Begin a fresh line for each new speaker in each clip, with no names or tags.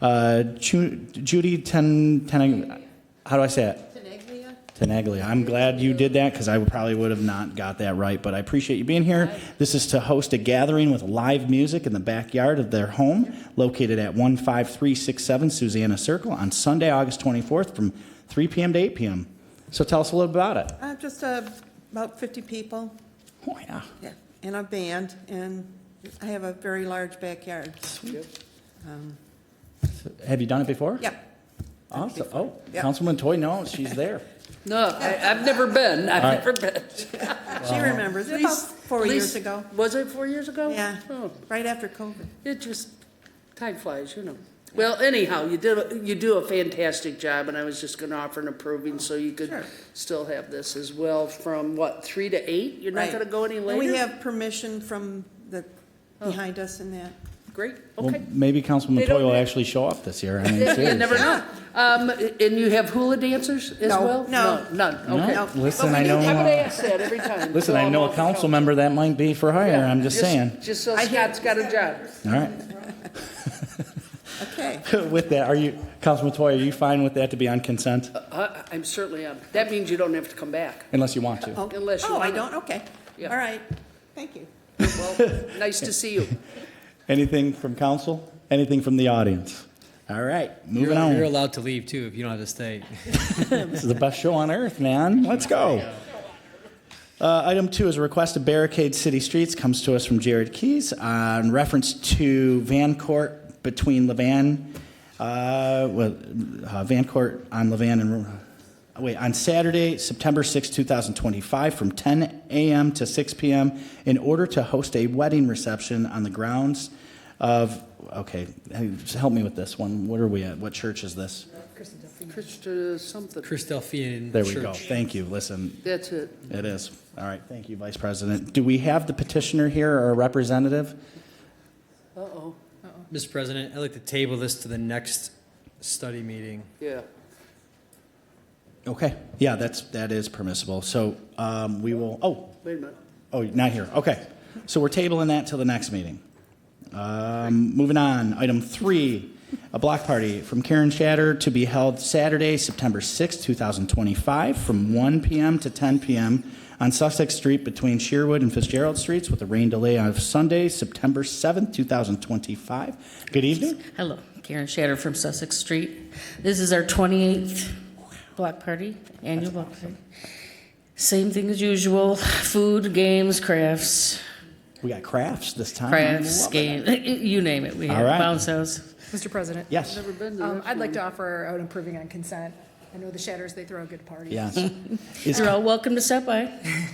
Uh, Chu- Judy Ten, Ten, how do I say it?
Tenaglia?
Tenaglia. I'm glad you did that because I would- probably would have not got that right, but I appreciate you being here. This is to host a gathering with live music in the backyard of their home located at 15367 Susanna Circle on Sunday, August 24th from 3 p.m. to 8 p.m. So tell us a little about it.
Uh, Just uh, about 50 people,
Oh, yeah.
yeah, and a band, and I have a very large backyard.
Have you done it before?
Yep.
Awesome. Oh,
Yeah.
Councilman Toy, no, she's there.
No, I, I've never been, I've
right.
never been.
She remembers, about four years
Least-
ago.
Was it four years ago?
Yeah,
Oh,
right after COVID.
It just, time flies, you know. Well, anyhow, you did, you do a fantastic job, and I was just gonna offer an approving, so you
Sure.
could still have this as well, from what, three to eight? You're not
Right.
gonna go any
And
later? Oh.
We have permission from the, behind us and that.
Great,
Well,
okay.
maybe Councilman
They don't
Toy will
have-
actually show up this year. I mean,
You
seriously.
never know. Um, and you have hula dancers as
No,
well?
no.
None,
No,
okay.
No.
Listen,
But
I
we
know.
do
I would
have
uh,
ask that every time.
Listen,
so
I
I'm
know
off
a
the
council member that might be for hire. I'm just saying.
Just so
I hear-
Scott's got a job.
All right.
Okay,
With that, are you, Councilman Toy, are you fine with that to be on consent?
I- I'm certainly on. That means you don't have to come back.
Unless you want to.
oh,
Unless you
oh, I
wanna-
don't, okay, all
Yeah.
right, thank you.
Well, nice to see you.
Anything from council? Anything from the audience? All right, moving
You're, you're
on.
allowed to leave too if you don't have to stay.
This is the best show on earth, man. Let's go. Uh, item two is a request to barricade city streets. Comes to us from Jared Keys uh, in reference to Van Court between Levan, uh, well, uh, Van Court on Levan and uh, wait on Saturday, September 6, 2025, from 10 a.m. to 6 p.m. in order to host a wedding reception on the grounds of. Okay, hey, just help me with this one. What are we at? What church is this?
Krista something.
Chris Delphian
There we
Church.
go. Thank you. Listen,
That's it.
it is. All right. Thank you, Vice President. Do we have the petitioner here or a representative?
Uh-oh,
Mr. President, I'd like to table this to the next study meeting.
yeah.
Okay. Yeah, that's, that is permissible. So um, we will, oh,
Wait a minute.
oh, not here. Okay. So we're tabling that till the next meeting. Um, Moving on, item three, a block party from Karen Shatter to be held Saturday, September 6, 2025, from 1 p.m. to 10 p.m. on Sussex Street between Sherwood and Fitzgerald Streets with a rain delay of Sunday, September 7, 2025. Good evening.
Hello, Karen Shatter from Sussex Street. This is our 28th block party, annual block party. Same thing as usual, food, games, crafts,
We got crafts this time.
crafts,
Love it.
games, you name it. We
Uh-huh. All right.
have bounce house.
Mr. President?
Yes,
Um, I'd like to offer out improving on consent. I know the Shatters, they throw a good party.
yes. Is,
You're all welcome to stop by.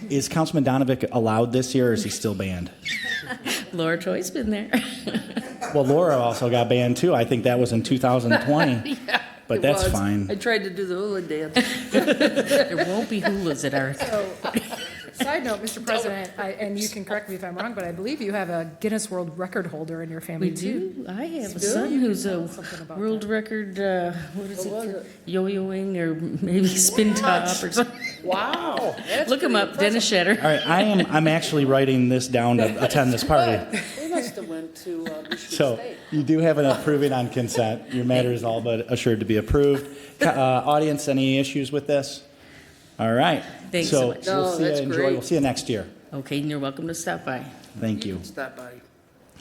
is Councilman Donovic allowed this year or is he still banned?
Laura Troy's been there.
Well, Laura also got banned too. I think that was in 2020. But
It
that's
was. I
fine.
tried to do the hula dance.
There won't be hulas at our,
So, side note, Mr. President, I- and you can correct me if I'm wrong, but I believe you have a Guinness World Record holder in your
we
family, too.
do, I have a son who's a
Something about
world record, uh, what is
What was
it?
it?
Yo-yoing or maybe spin top or something.
Wow. that's
Look him
pretty
up, Dennis Shatter.
All right, I am, I'm actually writing this down to attend this party.
impressive. We must have went to uh, Michigan
So
State.
you do have an approving on consent. Your matter is all but assured to be approved. Ca- uh, Audience, any issues with this? All right.
Thanks so much.
we'll
No,
see ya.
that's
Enjoy.
great.
We'll see you next year.
Okay, and you're welcome to stop by.
Thank you.
Stop by.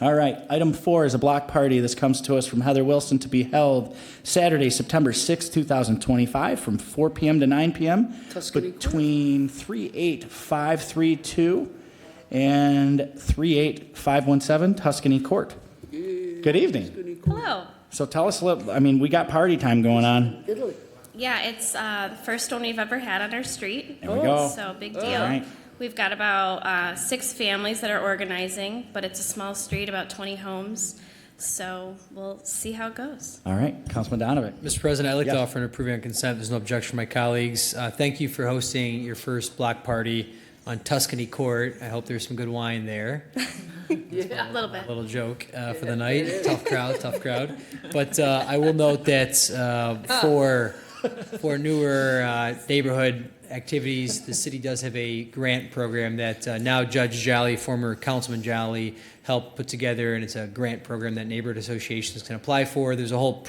All right, item four is a block party. This comes to us from Heather Wilson to be held Saturday, September 6, 2025, from 4 p.m. to 9 p.m.
Tuscany Court.
Between 38532 and 38517 Tuscany Court. Good evening.
Hello.
So tell us, a little- I mean, we got party time going on.
Italy.
Yeah, it's uh, the first one we've ever had on our street. Oh.
There we go.
So big
All
deal.
right.
We've got about uh, six families that are organizing, but it's a small street, about 20 homes. So we'll see how it goes.
All right, Councilman Donovan.
Mr. President, I'd like to
Yeah.
offer an approving on consent. There's no objection from my colleagues. Uh, thank you for hosting your first block party on Tuscany Court. I hope there's some good wine there.
A little bit.
Little joke uh, for the night. Tough crowd, tough crowd. But uh, I will note that uh, for for newer uh, neighborhood activities, the city does have a grant program that uh, now Judge Jolly, former Councilman Jolly, helped put together, and it's a grant program that neighborhood associations can apply for. There's a whole